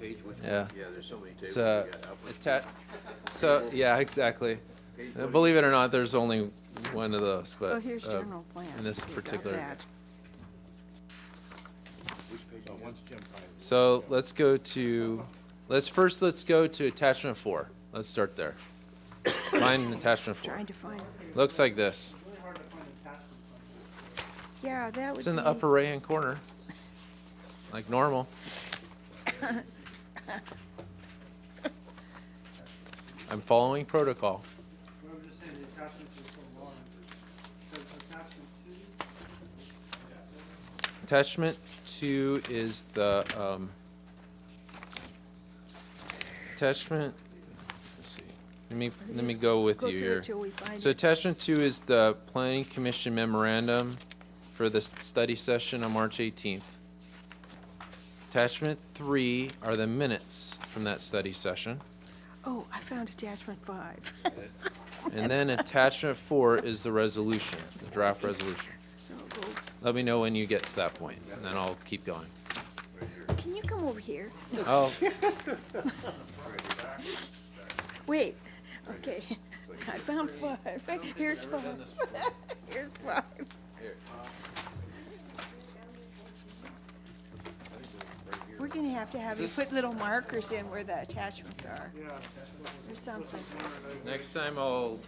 page, which one? Yeah. uh, Yeah, there's so many tables. So, we got out with- atta- so, yeah, exactly. Page Uh, one. Believe it or not, there's only one of those, but. Well, here's uh, general plan. in this We've got particular- that. Which page? again? So let's go to, let's first, let's go to attachment four. Let's start there. Mine, attachment four. Trying to find, Looks like this. yeah, that would be. It's in the upper right-hand corner, like normal. I'm following protocol. We were just saying the attachments are so long, so it's attachment two, Attachment two is the, um, attachment, let's see, let me, let me Just go with go you through it here. till we find So it. attachment two is the planning commission memorandum for the s- study session on March eighteenth. Attachment three are the minutes from that study session. Oh, I found attachment five. And then attachment four is the resolution, the draft resolution. So, go- Let me know when you get to that point, and then I'll keep going. can you come over here? Oh, Wait, okay, I found five. Here's five. Here's five. We're gonna have to have you Is this- put little markers in where the attachments are, yeah, attachment or something. next time I'll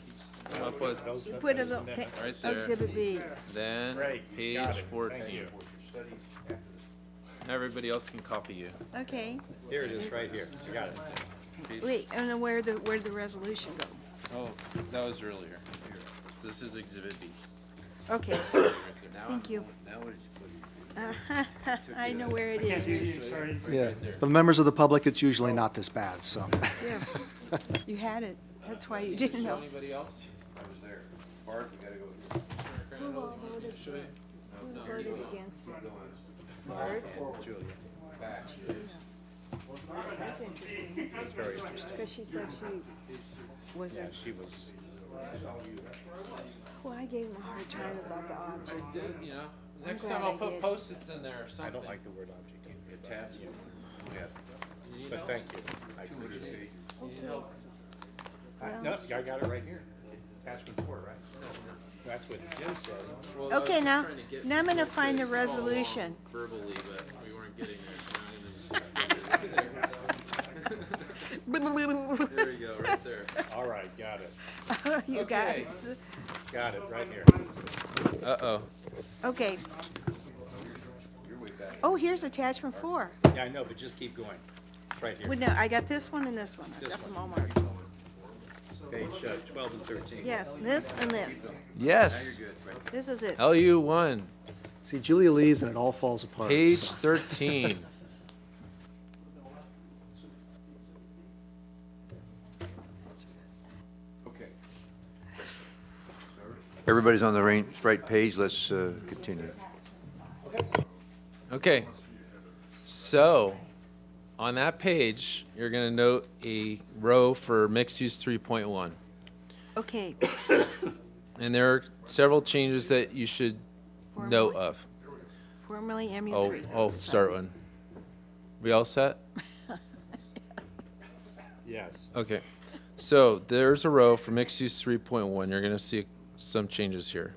come up with, Put a little, pa- Right there. exhibit B. then, page fourteen. Everybody else can copy you. Okay, Here it is, right here. I got it. Page- wait, and then where the, where the resolution go? Oh, that was earlier. This is exhibit B. Okay, Now thank you. Now it's put I know where it Can't do is. these, sorry. Yeah, for the members of the public, it's usually not this bad, so. Yeah. You had it, that's why you didn't know. anybody else? I was there. Bart, you gotta go. with Who all voted, who voted against it? Julia. Back. That's interesting. That's very interesting. Because she said she wasn't, She was, well, oh, I gave him a hard time about the object. Did, you know, next glad time I I'll put did. post-its in there or something. I don't like the word object, either, attached, yeah, You need but help? thank you. I two hundred appreciate it. pages. I- No, I got it right here. Attachment four, right? That's what Jim said. Well, I was Okay, just now- trying to get now I'm gonna people to find the follow along resolution. Verbally, but we weren't getting there. There you go, right there. All right, got it. You Okay. guys, Got it, right here. Uh-oh. okay. Oh, here's attachment four. Yeah, I know, but just keep going. Right here, Well, no, I got this one and this one. I This got one. them all marked. page uh, twelve and thirteen. Yes, this and this. Yes, Good, right. This is it. LU one, See, Julia leaves and it all falls apart. page so. thirteen. Okay. Everybody's on the rain, straight page, let's, uh, continue. Okay. So, on that page, you're gonna note a row for mixed use three point one. Okay, And there are several changes that you should know of. formerly MU uh, Oh, three. I'll start one. We all set? Yes. Okay. So there's a row for mixed use three point one. You're gonna see some changes here.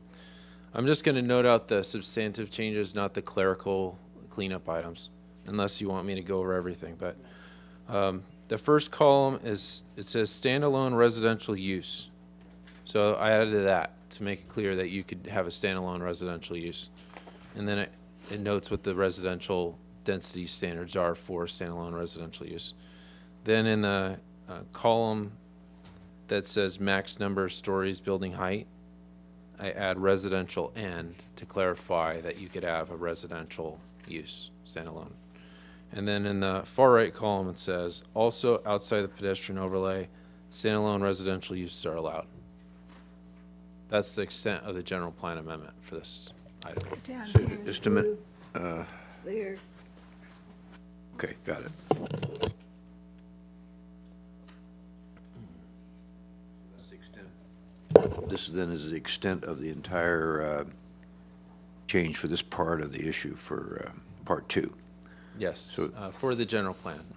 I'm just gonna note out the substantive changes, not the clerical cleanup items, unless you want me to go over everything, but. um, The first column is, it says standalone residential use. So I added that to make it clear that you could have a standalone residential use. And then it, it notes what the residential density standards are for standalone residential use. Then in the uh, column that says max number of stories, building height, I add residential and to clarify that you could have a residential use standalone. And then in the far right column, it says also outside the pedestrian overlay, standalone residential uses are allowed. That's the extent of the general plan amendment for this item. Down here, Just a minute, there. okay, got it. This then is the extent of the entire, uh, change for this part of the issue for, uh, part two. Yes, uh, for the general plan.